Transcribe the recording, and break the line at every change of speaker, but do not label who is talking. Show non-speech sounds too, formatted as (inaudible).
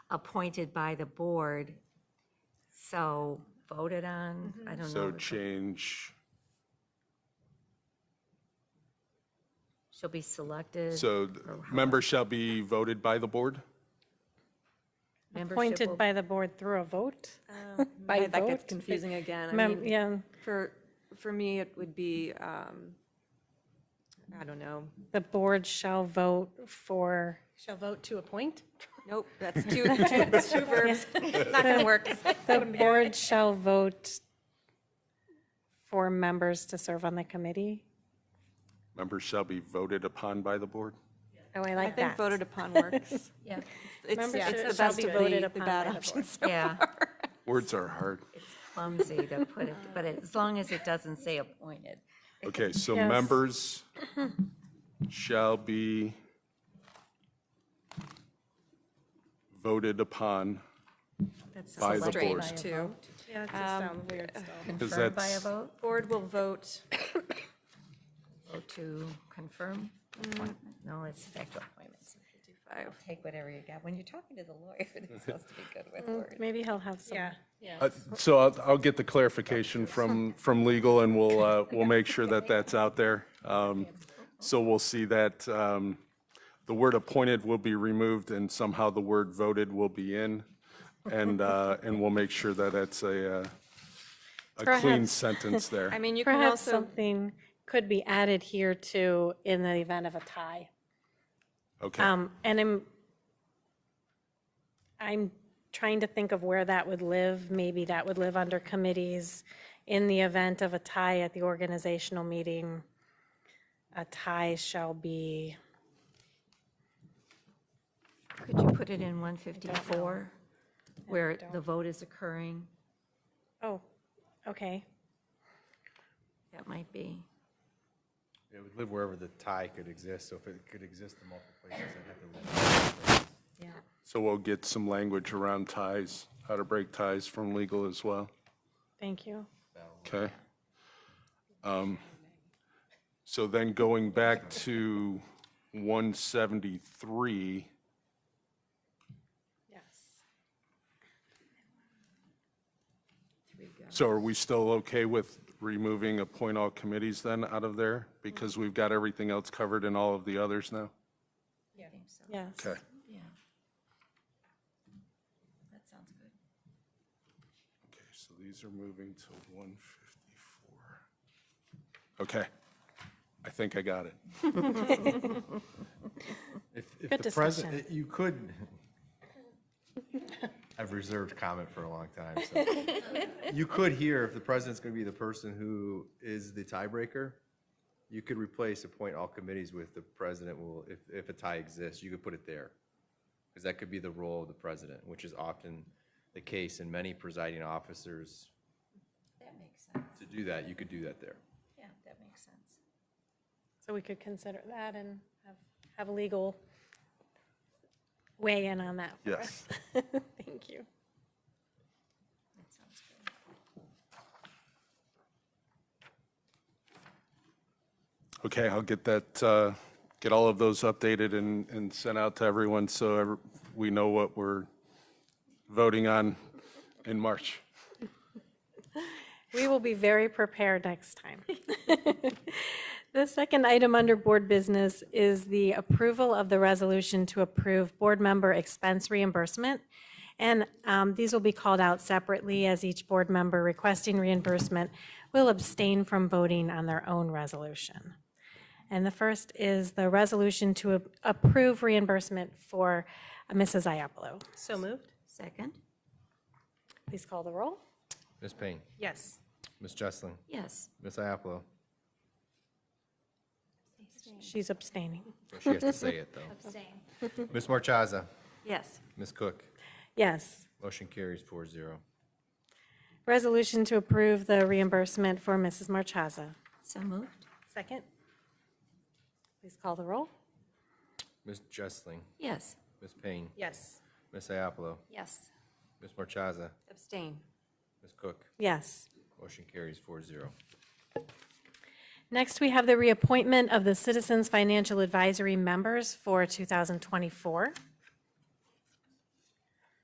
appointed by the board, so voted on, I don't
So
know.
change,
She'll be selected.
so members shall be voted by the board?
membership will-
Appointed by the board through a vote? (laughs) By
I- That gets
vote?
confusing again. I
Mem-
mean,
Yeah,
for, for me, it would be, um, I don't know.
the board shall vote for,
Shall vote to appoint?
Nope, that's two, two
(laughs)
two verbs. Not going to work.
the board shall vote for members to serve on the committee.
Members shall be voted upon by the board?
Oh, I
I
like
think
that.
voted upon works.
Yeah,
It's,
Membership
it's the
shall
best
be
of
voted
the, the
upon
bad
by the
options. so
yeah,
Words are hard.
clumsy to put it, but as long as it doesn't say appointed.
Okay, so
Yes.
members shall be voted upon
That's
by the
selected
board.
by a
Strange, too.
Yeah, it just
Um,
sounds weird still.
Confirmed by a
that's-
vote,
Board will vote,
vote to confirm
Mm.
appointment? No, it's factual appointments.
five.
Take whatever you got. When you're talking to the lawyer, (laughs) they're
(laughs)
supposed to be good with words.
(laughs) Maybe he'll have some.
Uh, So I'll, I'll get the clarification from, from legal and we'll, uh, we'll make sure that that's out there. Um, So we'll see that um, the word appointed will be removed and somehow the word voted will be in. And, uh, and we'll make sure that that's a, uh, a clean
Perhaps-
(laughs) sentence there.
I mean, you can
Perhaps
also,
something could be added here too, in the event of a tie.
Okay,
Um, and I'm, I'm trying to think of where that would live. Maybe that would live under committees in the event of a tie at the organizational meeting. A tie shall be,
Could you put it in 154, where the vote is occurring?
oh, okay.
That might be.
It would live wherever the tie could exist, so if it could exist in multiple places, it'd have to live.
so we'll get some language around ties, how to break ties from legal as well.
Thank you.
Okay. Um, So then going back to 173,
Yes.
so are we still okay with removing appoint all committees then out of there? Because we've got everything else covered in all of the others now?
Yes.
Okay.
Yeah. That sounds good.
Okay, so these are moving to 154. Okay, I think I got it.
If, if
Good
the president, you could, (laughs) I've reserved comment for a long time, so. You could hear if the president's gonna be the person who is the tiebreaker, you could replace appoint all committees with the president will, if, if a tie exists, you could put it there. Because that could be the role of the president, which is often the case in many presiding officers.
That makes sense.
To do that, you could do that there.
Yeah, that makes sense.
So we could consider that and have, have a legal weigh in on that for us.
Yes.
(laughs) Thank you.
That sounds good.
Okay, I'll get that, uh, get all of those updated and, and sent out to everyone so every- we know what we're voting on in March.
We will be very prepared next
(laughs)
time. (laughs) The second item under board business is the approval of the resolution to approve board member expense reimbursement. And um, these will be called out separately as each board member requesting reimbursement will abstain from voting on their own resolution. And the first is the resolution to a- approve reimbursement for Mrs. Iapolo.
So moved?
Second?
Please call the roll.
Ms. Payne,
Yes.
Ms. Jesslin,
Yes.
Ms. Iapolo.
She's abstaining.
She has to say it, though. Ms. Marchaza,
yes,
Ms. Cook,
Yes.
motion carries four zero.
Resolution to approve the reimbursement for Mrs. Marchaza.
So moved?
Second. Please call the roll.
Ms. Jessling,
Yes.
Ms. Payne,
Yes.
Ms. Iapolo,
Yes.
Ms. Marchaza,
abstain,
Ms. Cook,
Yes.
motion carries four zero.
Next, we have the reappointment of the Citizens Financial Advisory members for 2024.